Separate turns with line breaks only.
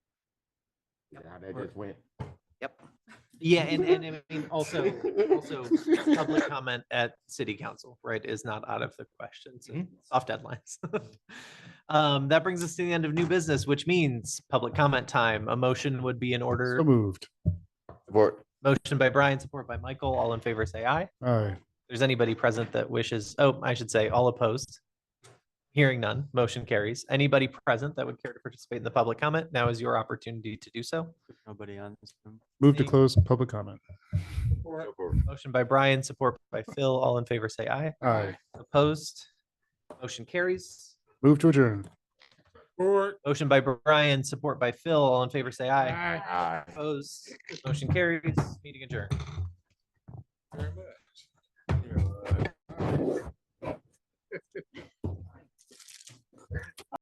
Yeah, that just went.
Yeah, and, and I mean, also, also public comment at city council, right, is not out of the question. So soft deadlines. Um, that brings us to the end of new business, which means public comment time. A motion would be in order.
So moved.
Support.
Motion by Brian, support by Michael. All in favor, say aye. If
Aye.
there's anybody present that wishes, oh, I should say, all opposed. Hearing none, motion carries. Anybody present that would care to participate in the public comment, now is your opportunity to do so.
Nobody on this Zoom.
Move to
Thank-
close public comment.
Motion by Brian, support by Phil. All in favor, say aye.
Aye.
Opposed? Motion carries.
Move to adjourn.
Motion by Brian, support by Phil. All in favor, say aye.
Aye.
Opposed? Motion carries. Meeting adjourned.